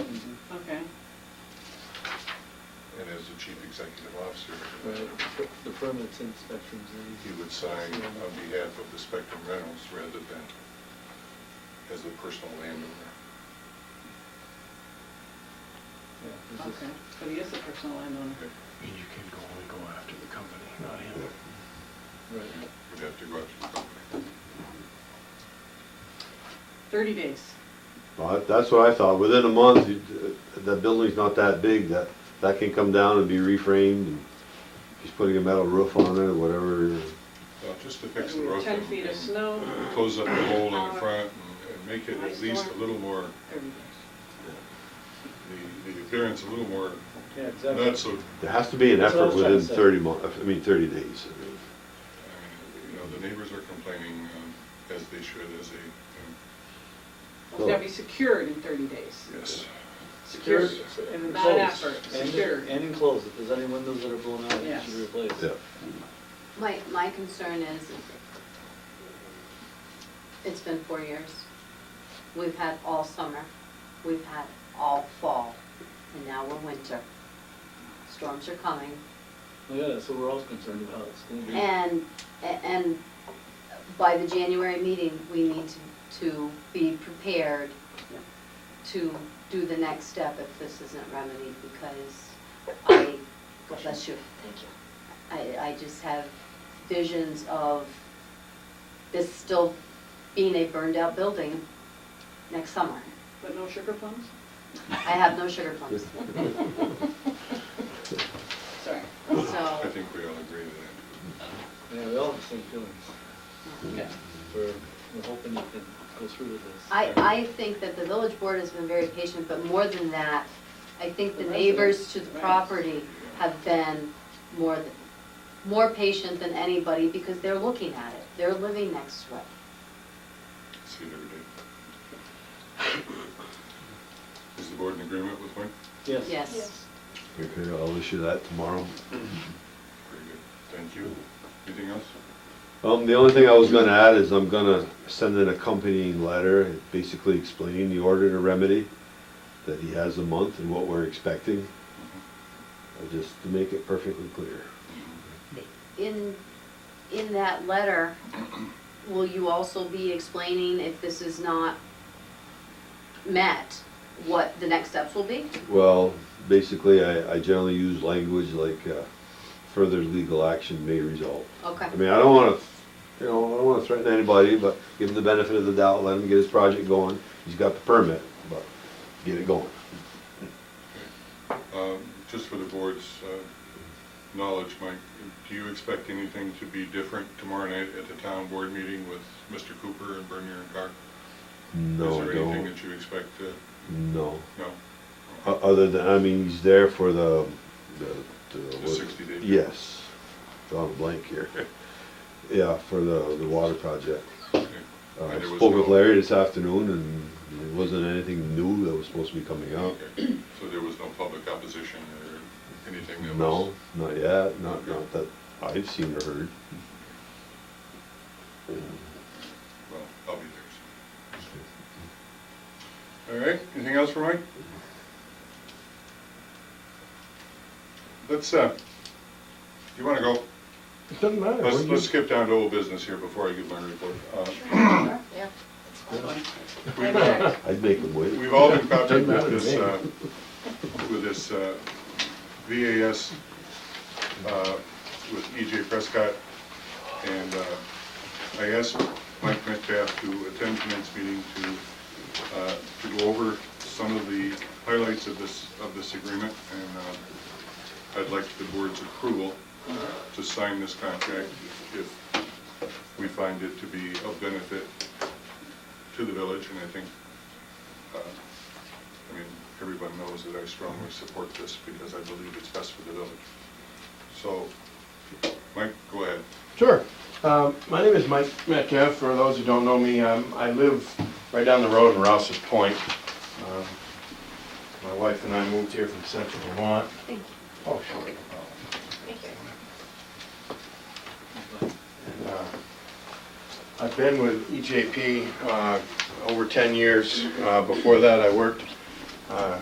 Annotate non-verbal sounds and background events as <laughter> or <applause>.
Mm-hmm. chief executive officer, Right, the permits inspections. and- he would sign on behalf of the Spectrum Rentals rather than as the personal landowner. Yeah, this is- Okay, but he is a personal landowner. And you can go only go after the company, not him. Right. You'd have to go out to the company. Thirty days. Well, that- that's what I thought, within a month, you- the building's not that big, that, that can come down and be reframed, and just putting a metal roof on it or whatever. Well, just to fix the roof. Ten and- feet of and snow. Close up the hole in the front and- and make it at least a little more, Thirty days. the, the appearance a little more, Yeah, exactly. not so, There has to be an That's what I effort was trying to within say. thirty mo, I mean, thirty days. I mean. I mean, you know, the neighbors are complaining, um, as they should, as a, It's gotta be secured in thirty days. um, yes. Secured, And not enclosed. effort, And- secured. And enclosed, if there's any windows that are blown out, you Yes. should replace. Yeah, My, my concern is, it's been four years. We've had all summer, we've had all fall, and now we're winter. Storms are coming, Yeah, so we're all concerned about it. It's gonna be- and, and by the January meeting, we need to, to be prepared to do the next step if this isn't remedied, because I, God bless you. Thank you. I, I just have visions of this still being a burned-out building next summer. But no sugar <laughs> plums? I have no sugar plums, Sorry. so. I think we all agree with that. Yeah, we all have the same feelings. Okay. We're, we're hoping you can go through with this. I, I think that the village board has been very patient, but more than that, I think the The neighbors residents, to the right. property have been more, th- more patient than anybody because they're looking at it. They're living next to it. See it every day. <coughs> Is the board in agreement with Wayne? Yes. Yes. okay, I'll issue that tomorrow. Very good. Thank you. Anything else? Um, the only thing I was gonna add is I'm gonna send an accompanying letter, basically explaining the order to remedy, that he has a month and what we're expecting, uh, Mm-hmm. just to make it perfectly clear. In, in that letter, will you also be explaining if this is not met, what the next steps will be? Well, basically, I, I generally use language like, uh, further legal action may result. Okay. I mean, I don't wanna, you know, I don't wanna threaten anybody, but give him the benefit of the doubt, let him get his project going. He's got the permit, but get it going. Um, Just for the board's uh, knowledge, Mike, do you expect anything to be different tomorrow night at the town board meeting with Mr. Cooper and Bernier and Carr? No, I Is there anything don't, that you expect to, no. no? O- Other than, I mean, he's there for the, the. The what- 60 day. Yes. Drawing a blank <laughs> here. Yeah, for the, the water project. Okay. Uh, I And there was spoke with no- Larry this afternoon and it wasn't anything new that was supposed to be coming up. Okay. So there was no public opposition or anything that was? No, not yet, not, not that I've seen <laughs> or heard. Well, I'll be there. soon. All right, anything else for Mike? Let's, uh, you wanna go? It doesn't matter. Let's, What do let's you- skip down to old business here before I give my report. Uh, Yeah. Right there. I'd make them wait. We've all been contacted Doesn't matter to with this, me. uh, with this uh, VAS, uh, with EJ Prescott, and uh, I asked Mike Metcalf to attend tonight's meeting to, uh, to go over some of the highlights of this, of this agreement, and uh, I'd like the board's approval to sign this contract if we find it to be of benefit to the village, and I think uh, I mean, everyone knows that I strongly support this because I believe it's best for the village. So, Mike, go ahead. Sure. Um, My name is Mike Metcalf. For those who don't know me, um, I live right down the road in Rouse's Point. Um, My wife and I moved here from Central Vermont. Thank you. Oh, sure. But- And, uh, I've been with E EJP uh, over 10 years. Uh, Before that, I worked uh,